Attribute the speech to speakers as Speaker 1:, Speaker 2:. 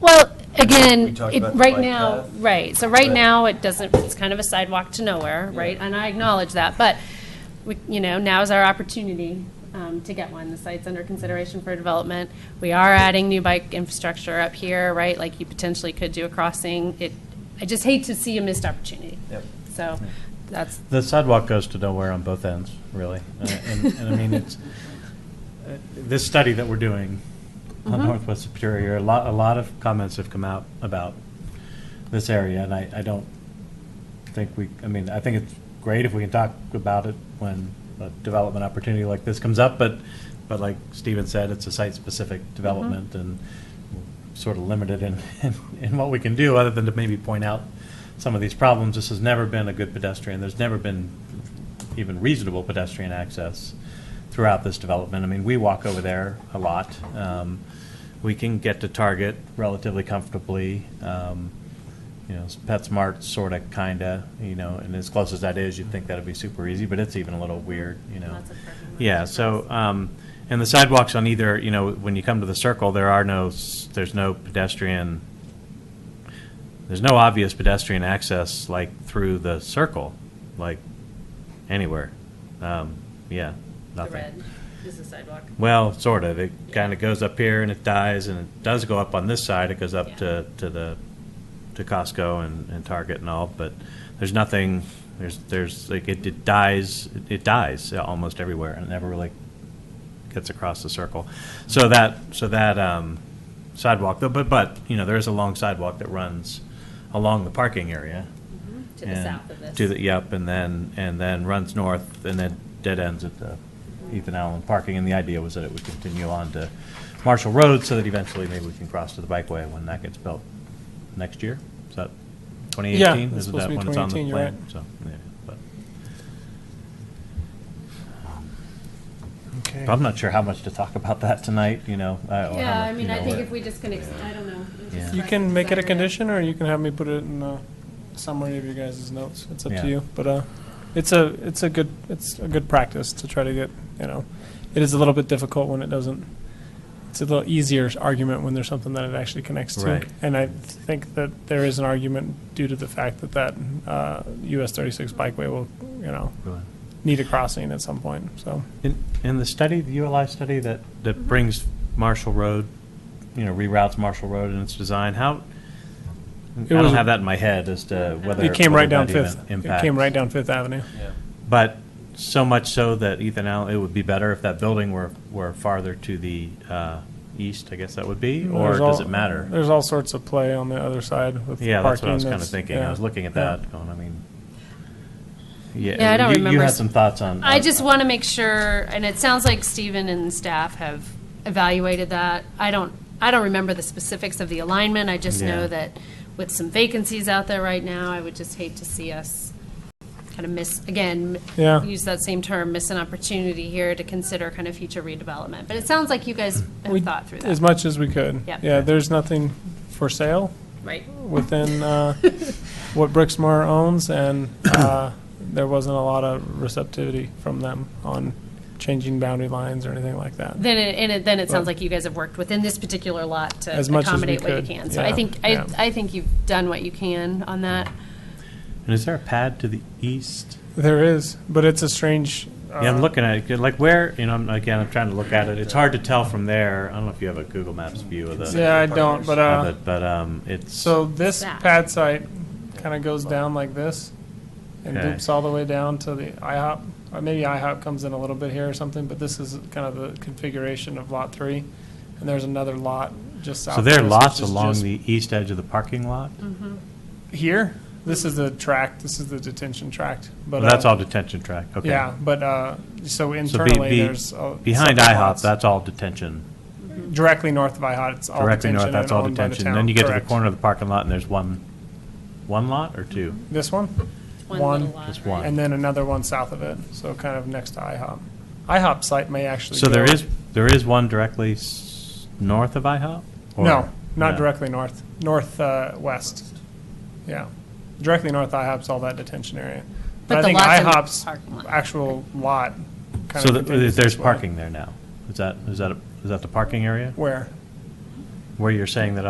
Speaker 1: Well,
Speaker 2: We
Speaker 1: again,
Speaker 2: talked
Speaker 1: it,
Speaker 2: about the
Speaker 1: right
Speaker 2: bike
Speaker 1: now,
Speaker 2: path.
Speaker 1: right, so right
Speaker 2: But-
Speaker 1: now, it doesn't, it's kind of a sidewalk to nowhere, right? And I acknowledge that, but, we- you know, now's our opportunity um, to get one. The site's under consideration for development. We are adding new bike infrastructure up here, right? Like, you potentially could do a crossing. It, I just hate to see a missed opportunity.
Speaker 2: Yep.
Speaker 1: So, that's,
Speaker 3: The sidewalk goes to nowhere on both ends, really. Uh, And, and I mean, it's, uh, this study that we're doing on
Speaker 1: Mhm.
Speaker 3: Northwest Superior, a lot, a lot of comments have come out about this area, and I, I don't think we, I mean, I think it's great if we can talk about it when a development opportunity like this comes up, but, but like Steven said, it's a site-specific development, and we're sort of limited in, in- in what we can do, other than to maybe point out some of these problems. This has never been a good pedestrian, there's never been even reasonable pedestrian access throughout this development. I mean, we walk over there a lot. Um, We can get to Target relatively comfortably. Um, you know, PetSmart sort of, kind of, you know, and as close as that is, you'd think that'd be super easy, but it's even a little weird, you know.
Speaker 1: Lots of parking lots
Speaker 3: Yeah,
Speaker 1: of
Speaker 3: so,
Speaker 1: cars.
Speaker 3: um, and the sidewalks on either, you know, when you come to the circle, there are no, s- there's no pedestrian, there's no obvious pedestrian access, like, through the circle, like, anywhere. Um, yeah,
Speaker 1: the
Speaker 3: nothing.
Speaker 1: red is the sidewalk.
Speaker 3: Well, sort of. It
Speaker 1: Yeah.
Speaker 3: kind of goes up here and it dies, and it does go up on this side. It goes up to, to the, to Costco and, and Target and all, but there's nothing, there's, there's, like, it, it dies, it dies almost everywhere and it never really gets across the circle. So that, so that, um, sidewalk, though, but, but, you know, there is a long sidewalk that runs along the parking area.
Speaker 1: To the
Speaker 3: and-
Speaker 1: south of this.
Speaker 3: To Mm-hmm. the, yep, and then, and then runs north and then dead ends at the Ethan Allen parking. And the idea was that it would continue on to Marshall Road so that eventually maybe we can cross to the bikeway when that gets built next year. Is that 2018?
Speaker 4: Yeah, it's
Speaker 3: Isn't
Speaker 4: supposed
Speaker 3: that
Speaker 4: to be
Speaker 3: when it's on the
Speaker 4: 2018, you're
Speaker 3: plan?
Speaker 4: right.
Speaker 3: So, yeah, but-
Speaker 4: Okay.
Speaker 3: but I'm not sure how much to talk about that tonight, you know. uh, or how
Speaker 1: Yeah, I
Speaker 3: much,
Speaker 1: mean,
Speaker 3: you
Speaker 1: I
Speaker 3: know,
Speaker 1: think
Speaker 3: what-
Speaker 1: if we just can, ex- I don't know. It's
Speaker 3: Yeah.
Speaker 1: just
Speaker 4: You
Speaker 1: like
Speaker 4: can make it a
Speaker 1: desire.
Speaker 4: condition, or you can have me put it in a summary of your guys' notes. It's up
Speaker 3: Yeah.
Speaker 4: to you. But uh, it's a it's a good it's a good practice to try to get you know. It is a little bit difficult when it doesn't. It's a little easier argument when there's something that it actually connects to.
Speaker 3: Right.
Speaker 4: And I think that there is an argument due to the fact that that uh, US 36 bikeway will you know
Speaker 3: Really.
Speaker 4: need a crossing at some point. So
Speaker 3: In, in the study, the ULI study that,
Speaker 1: Mm-hmm.
Speaker 3: that brings Marshall Road, you know, reroutes Marshall Road in its design, how, I
Speaker 4: It was-
Speaker 3: don't have that in my head as to whether.
Speaker 4: it came right
Speaker 3: whether
Speaker 4: down
Speaker 3: that even
Speaker 4: Fifth. It
Speaker 3: impacts.
Speaker 4: came right down Fifth Avenue.
Speaker 2: Yeah.
Speaker 3: But so much so that Ethan Allen, it would be better if that building were, were farther to the, uh, east, I guess that would be, or
Speaker 4: Mm, There's
Speaker 3: does
Speaker 4: all-
Speaker 3: it matter?
Speaker 4: There's all sorts of play on the other side with
Speaker 3: Yeah, that's what I was
Speaker 4: parking
Speaker 3: kind of thinking. I
Speaker 4: yeah,
Speaker 3: was looking at
Speaker 4: yeah.
Speaker 3: that, going, I mean,
Speaker 1: Yeah, I
Speaker 3: yeah, you,
Speaker 1: don't
Speaker 3: you
Speaker 1: remember
Speaker 3: had
Speaker 1: s-
Speaker 3: some thoughts on.
Speaker 1: I
Speaker 3: on-
Speaker 1: just want to make sure, and it sounds like Stephen and staff have evaluated that. I don't, I don't remember the specifics of the alignment. I just know
Speaker 3: Yeah.
Speaker 1: that with some vacancies out there right now, I would just hate to see us kind of miss, again,
Speaker 4: Yeah.
Speaker 1: use that same term, miss an opportunity here to consider kind of future redevelopment. But it sounds like you guys
Speaker 4: We-
Speaker 1: have thought through
Speaker 4: As
Speaker 1: that,
Speaker 4: much as we could.
Speaker 1: Yep.
Speaker 4: Yeah, there's nothing for sale
Speaker 1: right?
Speaker 4: within uh, what Brixmar owns, and uh, there wasn't a lot of receptivity from them on changing boundary lines or anything like that.
Speaker 1: Then, it- and it, then it sounds
Speaker 4: Well-
Speaker 1: like you guys have worked within this particular lot to
Speaker 4: As much as we
Speaker 1: accommodate what you
Speaker 4: could,
Speaker 1: can. So
Speaker 4: yeah,
Speaker 1: I think, I,
Speaker 4: yeah.
Speaker 1: I think you've done what you can on that.
Speaker 3: And is there a pad to the east?
Speaker 4: There is, but it's a strange.
Speaker 3: Yeah, I'm
Speaker 4: uh,
Speaker 3: looking at it, like where, you know, I'm- again, I'm trying to look at it, it's hard to tell from there, I don't know if you have a Google Maps view of the,
Speaker 4: Yeah, I don't, but uh,
Speaker 3: of it, but, um, it's.
Speaker 4: So this
Speaker 1: That.
Speaker 4: pad site kind of goes down like this and
Speaker 3: Okay.
Speaker 4: loops all the way down to the IHOP. Or maybe IHOP comes in a little bit here or something, but this is kind of the configuration of lot three. And there's another lot just south.
Speaker 3: So
Speaker 4: of
Speaker 3: there are
Speaker 4: this,
Speaker 3: lots
Speaker 4: which is
Speaker 3: along
Speaker 4: just Mm-hmm.
Speaker 3: the east edge of the parking lot,
Speaker 4: Here, this is the tract, this is the detention tract, but.
Speaker 3: Well, that's
Speaker 4: uh,
Speaker 3: all detention track, okay.
Speaker 4: Yeah, but, uh, so
Speaker 3: So be-
Speaker 4: internally,
Speaker 3: be-
Speaker 4: there's. uh,
Speaker 3: Behind
Speaker 4: separate
Speaker 3: IHOP,
Speaker 4: lots.
Speaker 3: that's all detention,
Speaker 4: Directly north of IHOP, it's all
Speaker 3: directly
Speaker 4: detention
Speaker 3: north,
Speaker 4: and
Speaker 3: that's all
Speaker 4: owned by the
Speaker 3: detention,
Speaker 4: town,
Speaker 3: then you get to the
Speaker 4: correct.
Speaker 3: corner of the parking lot and there's one, one lot or two?
Speaker 4: This one?
Speaker 1: One
Speaker 4: One.
Speaker 1: little lot,
Speaker 3: Just
Speaker 1: right?
Speaker 3: one.
Speaker 4: and then another one south of it, so kind of next to IHOP. IHOP site may actually.
Speaker 3: So there
Speaker 4: go-
Speaker 3: is, there is one directly s- north of IHOP? Or-
Speaker 4: No, not
Speaker 3: no.
Speaker 4: directly north, north, uh, west. Yeah, directly north IHOP's all that detention area.
Speaker 1: But
Speaker 4: But I
Speaker 1: the
Speaker 4: think
Speaker 1: lot's in the
Speaker 4: IHOP's
Speaker 1: parking lot.
Speaker 4: actual lot. kind
Speaker 3: So th-
Speaker 4: of continues
Speaker 3: there's
Speaker 4: this way.
Speaker 3: parking there now, is that, is that, a- is that the parking area?
Speaker 4: Where?
Speaker 3: Where you're saying that